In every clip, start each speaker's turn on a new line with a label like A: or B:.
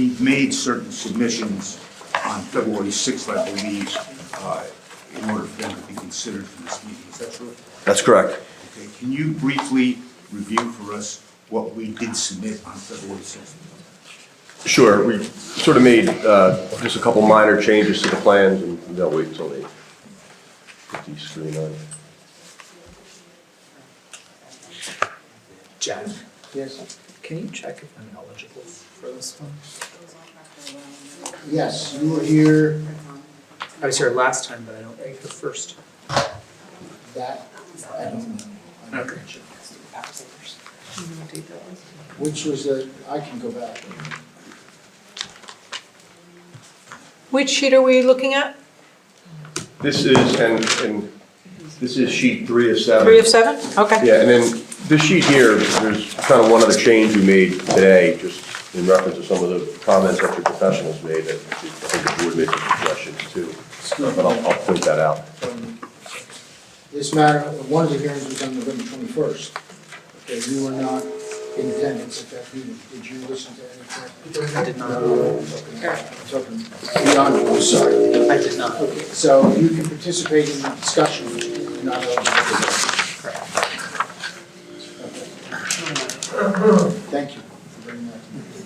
A: we made certain submissions on February 6th, I believe, uh, in order for them to be considered for this meeting. Is that true?
B: That's correct.
A: Okay, can you briefly review for us what we did submit on February 6th?
B: Sure, we sort of made uh, just a couple minor changes to the plans, and they'll wait until they put the screen on.
C: Jeff? Yes. Can you check if I'm eligible for this one?
D: Yes, you were here
C: I was here last time, but I don't think the first.
D: that, um, I don't know.
C: Okay.
D: Which was a, I can go back.
E: Which sheet are we looking at?
B: This is, and, and this is sheet three of seven.
E: Three of seven? Okay.
B: Yeah, and then this sheet here, there's kind of one other change we made today, just in reference to some of the comments that your professionals made, that I think the board made some suggestions too. But I'll, I'll point that out.
D: This matter, one of the hearings was on November twenty-first. Okay, you were not in attendance at that meeting. Did you listen to anything?
C: I did not.
D: Okay, Beyond, I'm sorry.
C: I did not.
D: Okay, so you can participate in the discussion, but you're not eligible to vote. Okay. Thank you for bringing that.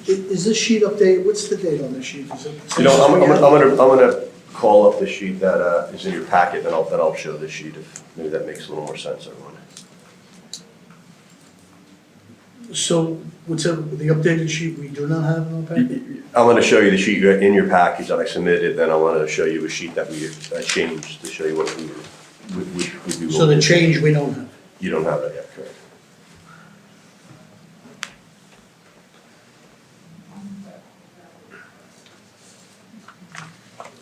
F: I- Is this sheet updated, what's the date on this sheet? Is it-
B: You know, I'm, I'm gonna- I'm gonna, I'm gonna call up the sheet that, uh, is in your packet, and I'll, then I'll show this sheet if, maybe that makes a little more sense, everyone.
F: So, what's up- the updated sheet we do not have in our packet?
B: I'm gonna show you the sheet you- in your package that I submitted, then I wanna show you a sheet that we, I changed to show you what we, were- we, we- we. we-
F: So the change we don't have.
B: You don't have that yet, correct?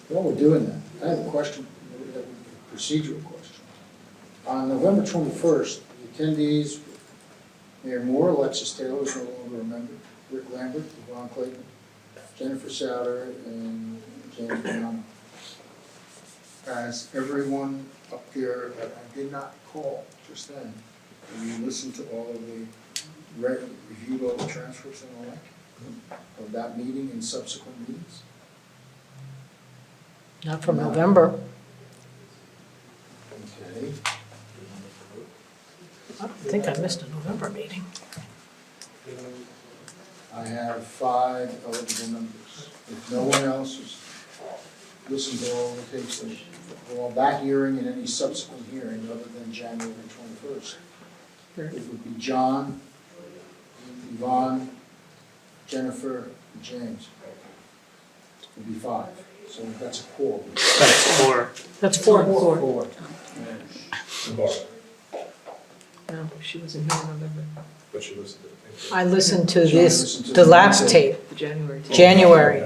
D: While we're doing that, I have a question, a procedural question. On November twenty-first, the attendees, Mayor Moore, Alexis Taylor is no longer a member, Rick Lambert, Ron Clayton, Jennifer Souter, and James Brown. As everyone up there that I did not call just then, and you listened to all of the, re- reviewed all the transcripts and all that, of that meeting and subsequent meetings?
E: Not from November.
D: Okay.
E: I don't think I missed a November meeting.
D: I have five eligible members. If no one else has listened to all the tapes, then well, that hearing and any subsequent hearing other than January twenty-first. It would be John, Yvonne, Jennifer, and James. It would be five, so that's a quorum.
C: That's four.
E: That's four.
D: Four.
E: No, she wasn't here in November.
G: But she listened to it.
E: I listened to
D: John
E: this,
D: listened to
E: the
D: the
E: last
D: Wednesday.
E: tape. January. January.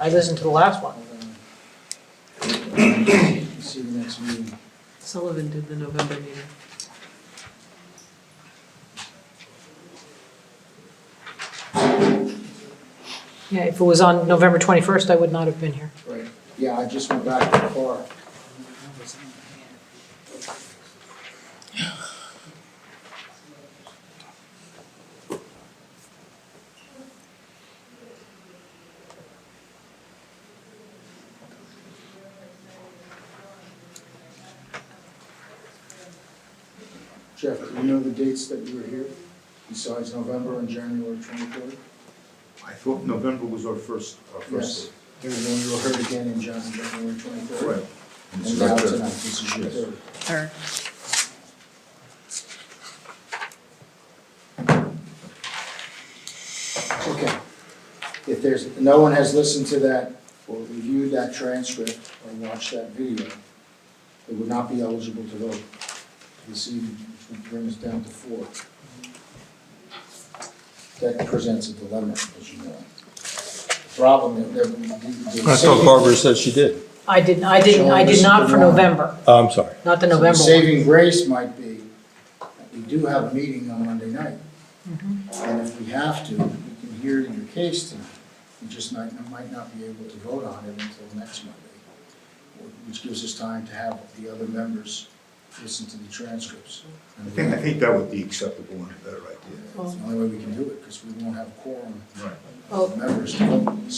E: I listened to the last one.
D: See you next meeting.
H: Sullivan did the November meeting.
E: Yeah, if it was on November 21st, I would not have been here.
D: Right. Yeah, I just went back to the car. Jeff, do you know the dates that you were here, besides November and January twenty-third?
A: I thought November was our first, our first.
D: There was one you were heard again in Jan- January twenty-third.
A: Right. And
D: And
A: it's
D: now
A: right
D: tonight,
A: there.
D: this is your third.
H: Or
D: Okay. If there's, no one has listened to that or reviewed that transcript or watched that video, they would not be eligible to vote this evening, which would bring us down to four. That presents a dilemma, as you know. The Problem that they're.
I: I thought Barbara said she did.
E: I didn't, I didn't, I did not for November,
I: Oh, I'm sorry.
E: not
D: So the
E: the November one.
D: Saving grace might be, that we do have a meeting on Monday night.
E: Mm-hmm.
D: And if we have to, we can hear it in your case tonight. We just might, might not be able to vote on it until next Monday, which gives us time to have the other members listen to the transcripts.
A: I think, I think that would be acceptable and a better idea.
D: It's the only way we can do it, because we won't have quorum
E: Oh,
A: Right.
D: of members to vote.